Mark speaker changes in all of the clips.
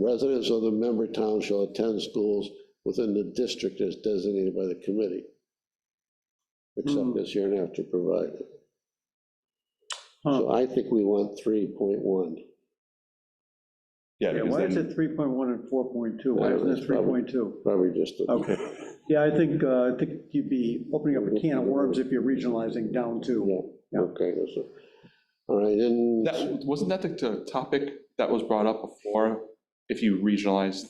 Speaker 1: Residents of the member town shall attend schools within the district as designated by the committee. Except as hereinafter provided. So I think we want three point one.
Speaker 2: Yeah,
Speaker 3: Yeah,
Speaker 2: because
Speaker 3: why is
Speaker 2: then,
Speaker 3: it 3.1 and 4.2? Why isn't
Speaker 1: That's
Speaker 3: it
Speaker 1: probably-
Speaker 3: 3.2?
Speaker 1: Probably just, a-
Speaker 3: Okay, yeah, I think, uh, I think you'd be opening up a can of worms if you're regionalizing down to,
Speaker 1: yeah, okay, that's a- all right, and,
Speaker 2: that, wasn't that the t- topic that was brought up before? If you regionalized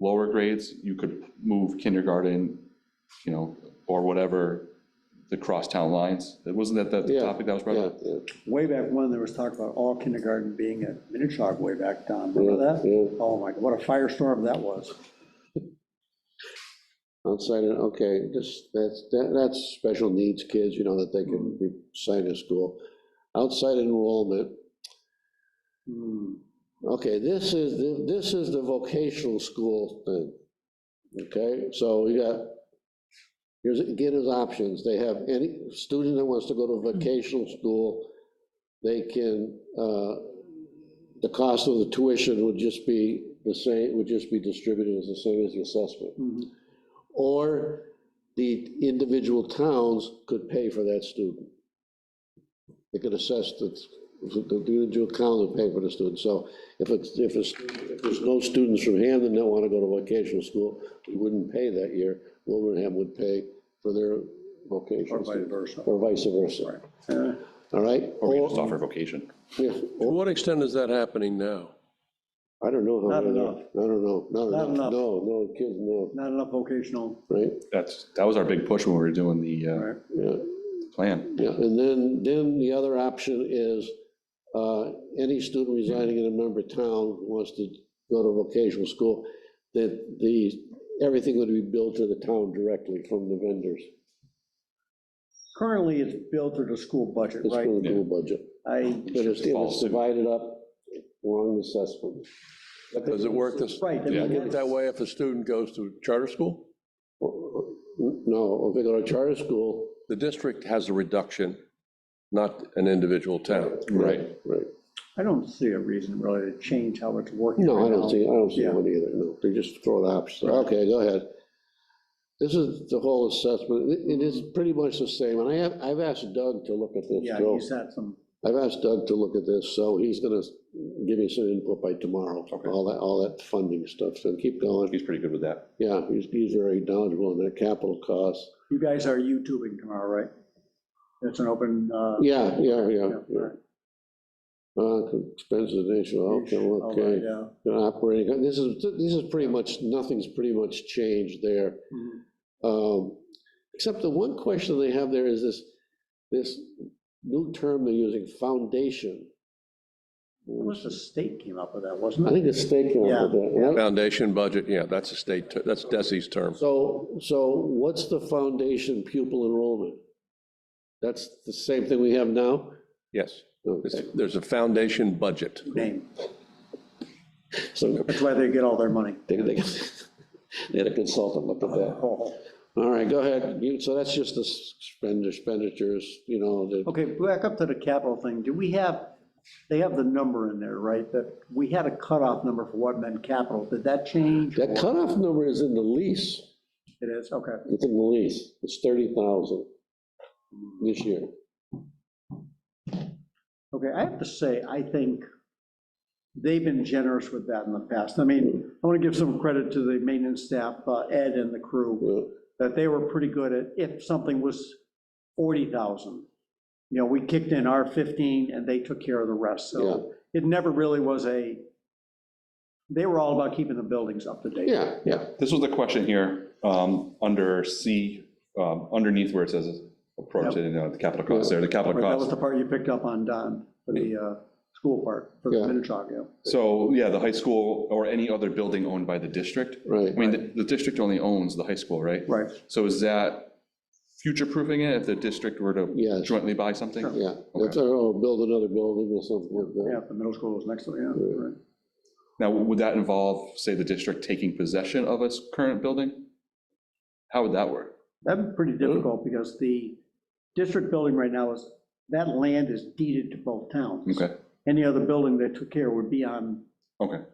Speaker 2: lower grades, you could move kindergarten, you know, or whatever, the crosstown lines. Wasn't that the- the
Speaker 1: Yeah,
Speaker 2: topic that was brought
Speaker 1: yeah,
Speaker 2: up?
Speaker 1: yeah.
Speaker 3: way back when, there was talk about all kindergarten being at Minichog way back down, remember that?
Speaker 1: Yeah,
Speaker 3: Oh my, what a firestorm that was.
Speaker 1: Outside, of- okay, this, that's, that- that's special needs kids, you know, that they can be assigned to school. Outside enrollment,
Speaker 3: Hmm,
Speaker 1: Mm-hmm. okay, this is, the- this is the vocational school thing. Okay, so we got, here's, again, his options, they have any student that wants to go to vocational school, they can, uh, the cost of the tuition would just be the same, would just be distributed as the same as the assessment.
Speaker 3: mhm.
Speaker 1: Or the individual towns could pay for that student. They could assess the, the individual town would pay for the student. So if it's, if it's, if there's no students from Hamden that want to go to vocational school, we wouldn't pay that year. Wilbraham would pay for their
Speaker 3: Or
Speaker 1: vocational
Speaker 3: vice
Speaker 1: student,
Speaker 3: versa.
Speaker 1: or vice versa,
Speaker 3: Uh,
Speaker 1: all right?
Speaker 2: Or we just offer vocation?
Speaker 1: yeah,
Speaker 4: To
Speaker 1: or-
Speaker 4: what extent is that happening now?
Speaker 1: I don't know. how
Speaker 3: Not
Speaker 1: many-
Speaker 3: enough.
Speaker 1: I don't know, not
Speaker 3: Not
Speaker 1: enough, no,
Speaker 3: enough.
Speaker 1: no, kids, no,
Speaker 3: Not enough vocational,
Speaker 1: right?
Speaker 2: That's, that was our big push when we were doing the uh,
Speaker 3: right?
Speaker 1: Yeah.
Speaker 2: plan.
Speaker 1: Yeah, and then, then the other option is, uh, any student residing in a member town who wants to go to vocational school, that the, everything would be billed to the town directly from the vendors.
Speaker 3: Currently, it's billed through the school budget,
Speaker 1: It's
Speaker 3: right?
Speaker 1: for the school budget,
Speaker 3: I,
Speaker 1: but it's, and it's divided up along the assessment.
Speaker 4: Does it work this,
Speaker 3: right, I
Speaker 2: Yeah.
Speaker 3: mean,
Speaker 4: work
Speaker 3: that's-
Speaker 4: that way if a student goes to charter school?
Speaker 1: No, if they go to charter school.
Speaker 4: The district has a reduction, not an individual town.
Speaker 2: Right.
Speaker 1: Right,
Speaker 3: I don't see a reason really to change how it's working
Speaker 1: no, I
Speaker 3: right
Speaker 1: don't
Speaker 3: now.
Speaker 1: see, I don't see
Speaker 3: Yeah.
Speaker 1: one either, no, they just throw the option, okay, go ahead. This is the whole assessment, It- it is pretty much the same, and I have, I've asked Doug to look at this,
Speaker 3: Yeah,
Speaker 1: Joe.
Speaker 3: he's had some,
Speaker 1: I've asked Doug to look at this, so he's gonna give me some input by tomorrow,
Speaker 2: Okay.
Speaker 1: all that, all that funding stuff, so keep going.
Speaker 2: He's pretty good with that.
Speaker 1: Yeah, he's, he's very knowledgeable on that capital cost.
Speaker 3: you guys are YouTubing tomorrow, right? It's an open, uh,
Speaker 1: Yeah, yeah, yeah,
Speaker 3: yeah,
Speaker 1: yeah.
Speaker 3: right.
Speaker 1: Uh, expenses of national, okay,
Speaker 3: All right,
Speaker 1: okay,
Speaker 3: yeah.
Speaker 1: operating, this is, this is pretty much, nothing's pretty much changed there.
Speaker 3: Mhm.
Speaker 1: Um, Except the one question they have there is this, this new term they're using, foundation.
Speaker 3: It was the state came up with that,
Speaker 1: I
Speaker 3: wasn't it?
Speaker 1: think it's taken
Speaker 3: Yeah.
Speaker 1: out of that. right?
Speaker 4: Foundation budget, yeah, that's a state, ter- that's Desi's term.
Speaker 1: So, so what's the foundation pupil enrollment? That's the same thing we have now?
Speaker 4: Yes, It's-
Speaker 1: Okay,
Speaker 4: there's a foundation budget.
Speaker 3: Name.
Speaker 1: so
Speaker 3: That's why they get all their money.
Speaker 1: they, they they had a consultant look at that.
Speaker 3: Oh,
Speaker 1: All right, go ahead. You- So that's just the spend expenditures, you know, the
Speaker 3: Okay, back up to the capital thing. Do we have, they have the number in there, right? That we had a cutoff number for what meant capital. Did that change?
Speaker 1: That
Speaker 3: or-
Speaker 1: cutoff number is in the lease,
Speaker 3: It is, okay.
Speaker 1: it's in the lease, it's thirty thousand this year.
Speaker 3: Okay, I have to say, I think they've been generous with that in the past. I
Speaker 1: Hmm.
Speaker 3: mean, I want to give some credit to the maintenance staff, uh, Ed and the crew,
Speaker 1: Well,
Speaker 3: that they were pretty good at, if something was 40,000, you know, we kicked in our 15 and they took care of the rest. So it never really was a, they were all about keeping the buildings up to date.
Speaker 1: Yeah, yeah,
Speaker 2: This was the question here, um, under C, um, underneath where it says approach it, you know, the capital costs there, the capital
Speaker 3: Right, That
Speaker 2: costs.
Speaker 3: was the part you picked up on, Don, for the uh, school part, for the
Speaker 1: Yeah.
Speaker 3: Minichog, yeah.
Speaker 2: So, yeah, the high school or any other building owned by the district.
Speaker 1: right.
Speaker 2: I mean, the- the district only owns the high school, right?
Speaker 3: Right,
Speaker 2: So is that future-proofing it if the district were to
Speaker 1: Yes,
Speaker 2: jointly buy something?
Speaker 1: yeah. That's, oh, build another building or something like
Speaker 3: yeah,
Speaker 1: that.
Speaker 3: the middle school was next to it, yeah,
Speaker 1: Yeah.
Speaker 3: right.
Speaker 2: Now, would that involve, say, the district taking possession of its current building? How would that work?
Speaker 3: That'd be pretty difficult, because the district building right now is, that land is deeded to both towns.
Speaker 2: Okay,
Speaker 3: Any other building they took care would be on
Speaker 2: okay.